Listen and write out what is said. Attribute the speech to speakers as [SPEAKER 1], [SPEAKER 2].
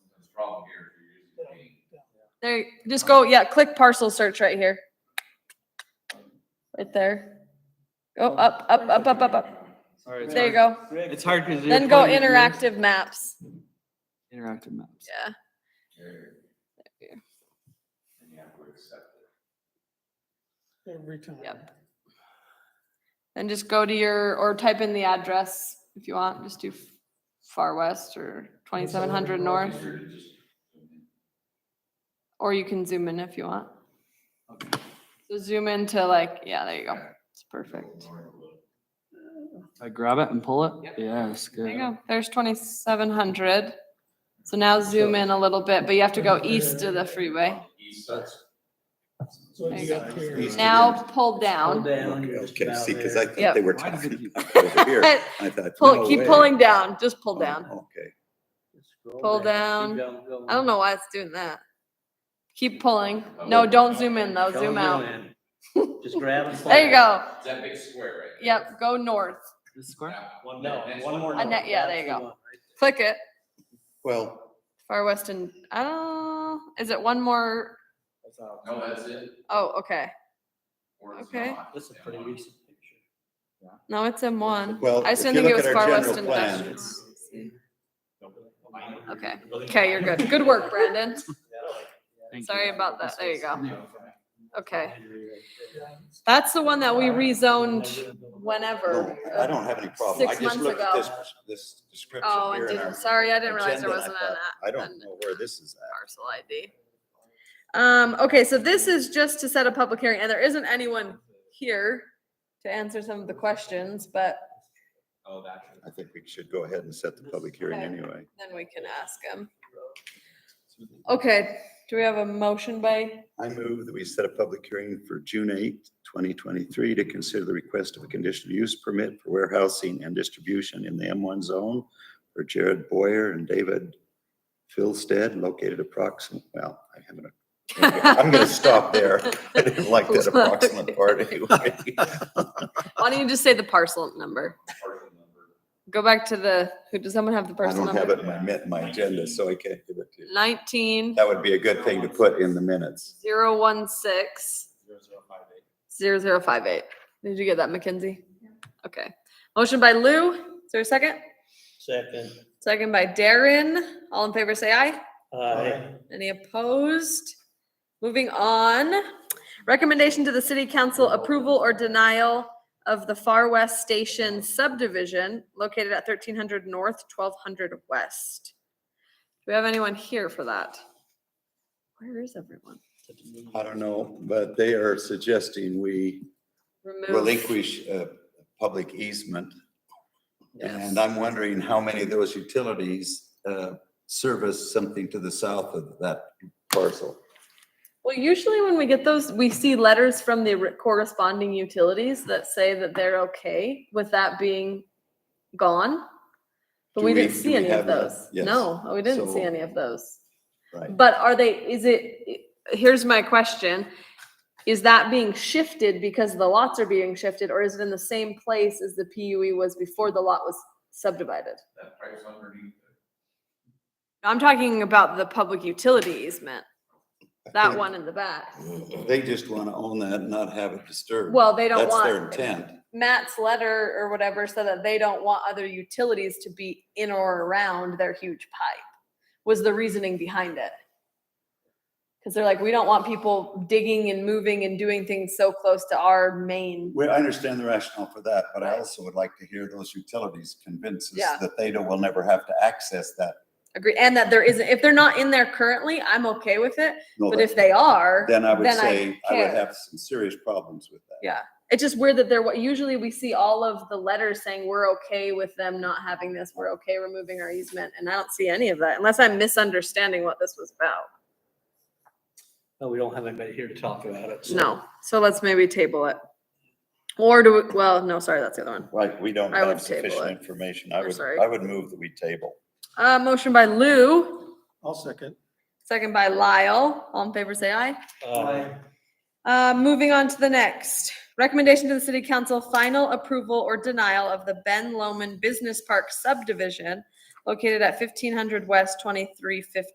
[SPEAKER 1] There, just go, yeah, click parcel search right here. Right there. Go up, up, up, up, up, up.
[SPEAKER 2] Sorry, it's
[SPEAKER 1] There you
[SPEAKER 2] hard-
[SPEAKER 1] go.
[SPEAKER 2] It's hard because.
[SPEAKER 1] Then go interactive maps.
[SPEAKER 2] Interactive maps.
[SPEAKER 1] Yeah.
[SPEAKER 3] Every time.
[SPEAKER 1] Yep. And just go to your, or type in the address if you want, just do Far West or twenty-seven hundred North. Or you can zoom in if you want. So zoom into like, yeah, there you go. It's perfect.
[SPEAKER 2] I grab it and pull it? Yes, good.
[SPEAKER 1] There you go. There's twenty-seven hundred. So now zoom in a little bit, but you have to go east of the freeway.
[SPEAKER 3] So
[SPEAKER 1] There
[SPEAKER 3] it's
[SPEAKER 1] you
[SPEAKER 3] got
[SPEAKER 4] go.
[SPEAKER 3] clear.
[SPEAKER 4] East
[SPEAKER 1] Now pull down.
[SPEAKER 4] Okay, see, because I
[SPEAKER 1] Yep.
[SPEAKER 4] thought they were
[SPEAKER 2] Why does it
[SPEAKER 4] talking
[SPEAKER 2] keep-
[SPEAKER 4] about over here. I thought.
[SPEAKER 1] Pull,
[SPEAKER 4] no
[SPEAKER 1] keep
[SPEAKER 4] way.
[SPEAKER 1] pulling down, just pull down.
[SPEAKER 4] Oh, Okay.
[SPEAKER 1] Pull down. I don't know why it's doing that. Keep pulling. No, don't zoom in though, zoom out.
[SPEAKER 5] Just grab and.
[SPEAKER 1] There you go.
[SPEAKER 6] That big square right there.
[SPEAKER 1] Yep, go north.
[SPEAKER 2] This square?
[SPEAKER 5] One,
[SPEAKER 6] no, one more.
[SPEAKER 1] Uh, ne- yeah, there you go. Click it.
[SPEAKER 4] Well,
[SPEAKER 1] Far west and, I don't, is it one more?
[SPEAKER 6] No, that's it.
[SPEAKER 1] Oh, okay.
[SPEAKER 6] Or it's
[SPEAKER 1] Okay.
[SPEAKER 6] not. Oh,
[SPEAKER 5] This is pretty recent picture.
[SPEAKER 1] No, it's M1.
[SPEAKER 4] well,
[SPEAKER 1] I
[SPEAKER 4] if
[SPEAKER 1] just
[SPEAKER 4] you
[SPEAKER 1] didn't think it
[SPEAKER 4] look
[SPEAKER 1] was
[SPEAKER 4] at
[SPEAKER 1] far
[SPEAKER 4] our
[SPEAKER 1] west
[SPEAKER 4] general
[SPEAKER 1] industrial.
[SPEAKER 4] plan,
[SPEAKER 1] Okay, okay, you're good. Good work, Brandon.
[SPEAKER 2] Thank you.
[SPEAKER 1] Sorry about that. There you go. Okay.
[SPEAKER 3] Yeah.
[SPEAKER 1] That's the one that we rezoned whenever.
[SPEAKER 4] no, I don't have any problem. I
[SPEAKER 1] Six
[SPEAKER 4] just
[SPEAKER 1] months
[SPEAKER 4] looked
[SPEAKER 1] ago.
[SPEAKER 4] at this, this description
[SPEAKER 1] Oh,
[SPEAKER 4] here
[SPEAKER 1] and
[SPEAKER 4] in our
[SPEAKER 1] didn't, sorry, I didn't realize there
[SPEAKER 4] agenda, and I
[SPEAKER 1] wasn't an
[SPEAKER 4] thought, I
[SPEAKER 1] an-
[SPEAKER 4] don't know where this is at.
[SPEAKER 1] parcel ID. Um, okay, so this is just to set a public hearing, and there isn't anyone here to answer some of the questions, but
[SPEAKER 6] Oh, that's.
[SPEAKER 4] I think we should go ahead and set the public hearing
[SPEAKER 1] Okay.
[SPEAKER 4] anyway.
[SPEAKER 1] then we can ask them. Okay, do we have a motion by,
[SPEAKER 4] I move that we set a public hearing for June eighth, twenty twenty-three to consider the request of a conditional use permit for warehousing and distribution in the M one zone for Jared Boyer and David Philstead located approximately, well, I haven't. I'm gonna stop there. I didn't like that approximate part anyway.
[SPEAKER 1] why don't you just say the parcel number? Go back to the, who, does someone have the
[SPEAKER 4] I
[SPEAKER 1] parcel
[SPEAKER 4] don't have
[SPEAKER 1] number?
[SPEAKER 4] it in my, mi- my agenda, so I can't give it to you.
[SPEAKER 1] Nineteen
[SPEAKER 4] That would be a good thing to put in the minutes.
[SPEAKER 1] zero one six zero zero five eight. Did you get that, Mackenzie? Okay, motion by Lou, is there a second?
[SPEAKER 5] Second.
[SPEAKER 1] Second by Darren. All in favor, say aye.
[SPEAKER 5] Aye.
[SPEAKER 1] Any opposed? Moving on. Recommendation to the city council approval or denial of the Far West Station subdivision located at thirteen hundred north, twelve hundred west. Do we have anyone here for that? Where is everyone?
[SPEAKER 4] I don't know, but they are suggesting we
[SPEAKER 1] Remove.
[SPEAKER 4] relinquish a public easement.
[SPEAKER 1] Yes.
[SPEAKER 4] And I'm wondering how many of those utilities uh, service something to the south of that parcel.
[SPEAKER 1] Well, usually when we get those, we see letters from the re- corresponding utilities that say that they're okay with that being gone. But
[SPEAKER 4] Do
[SPEAKER 1] we
[SPEAKER 4] we-
[SPEAKER 1] didn't
[SPEAKER 4] do
[SPEAKER 1] see
[SPEAKER 4] we
[SPEAKER 1] any of
[SPEAKER 4] have that?
[SPEAKER 1] those.
[SPEAKER 4] Yes.
[SPEAKER 1] No, we didn't see
[SPEAKER 4] So-
[SPEAKER 1] any of those.
[SPEAKER 4] Right.
[SPEAKER 1] But are they, is it, here's my question. Is that being shifted because the lots are being shifted or is it in the same place as the PUE was before the lot was subdivided?
[SPEAKER 6] That pipe's underneath.
[SPEAKER 1] I'm talking about the public utility easement,
[SPEAKER 4] I
[SPEAKER 1] that
[SPEAKER 4] think
[SPEAKER 1] one in the back.
[SPEAKER 4] They just want to own that and not have it disturbed.
[SPEAKER 1] Well, they don't
[SPEAKER 4] That's
[SPEAKER 1] want.
[SPEAKER 4] their intent.
[SPEAKER 1] Matt's letter or whatever so that they don't want other utilities to be in or around their huge pipe was the reasoning behind it. Cause they're like, we don't want people digging and moving and doing things so close to our main.
[SPEAKER 4] Well, I understand the rationale for that, but I
[SPEAKER 1] Right.
[SPEAKER 4] also would like to hear those utilities convince
[SPEAKER 1] Yeah.
[SPEAKER 4] us that they don't, will never have to access that.
[SPEAKER 1] Agree. And that there isn't, if they're not in there currently, I'm okay with it.
[SPEAKER 4] No,
[SPEAKER 1] But
[SPEAKER 4] that-
[SPEAKER 1] if they are,
[SPEAKER 4] Then I would
[SPEAKER 1] then I
[SPEAKER 4] say I would
[SPEAKER 1] care.
[SPEAKER 4] have some serious problems with that.
[SPEAKER 1] it's just weird that they're, what usually we see all of the letters saying, we're okay with them not having this. We're okay removing our easement. And I don't see any of that unless I'm misunderstanding what this was about.
[SPEAKER 5] No, uh, we don't have anybody here to talk about it. so-
[SPEAKER 1] No, so let's maybe table it. Or do, we well, no, sorry, that's the other one.
[SPEAKER 4] Right, we don't
[SPEAKER 1] I would
[SPEAKER 4] have
[SPEAKER 1] table
[SPEAKER 4] sufficient
[SPEAKER 1] it.
[SPEAKER 4] information. I
[SPEAKER 1] We're
[SPEAKER 4] would,
[SPEAKER 1] sorry.
[SPEAKER 4] I would move that we table.
[SPEAKER 1] Uh, motion by Lou,
[SPEAKER 3] I'll second.
[SPEAKER 1] second by Lyle. All in favor, say aye.
[SPEAKER 5] Aye.
[SPEAKER 1] Uh, moving on to the next. Recommendation to the city council, final approval or denial of the Ben Loman Business Park subdivision located at fifteen hundred west, twenty-three fifty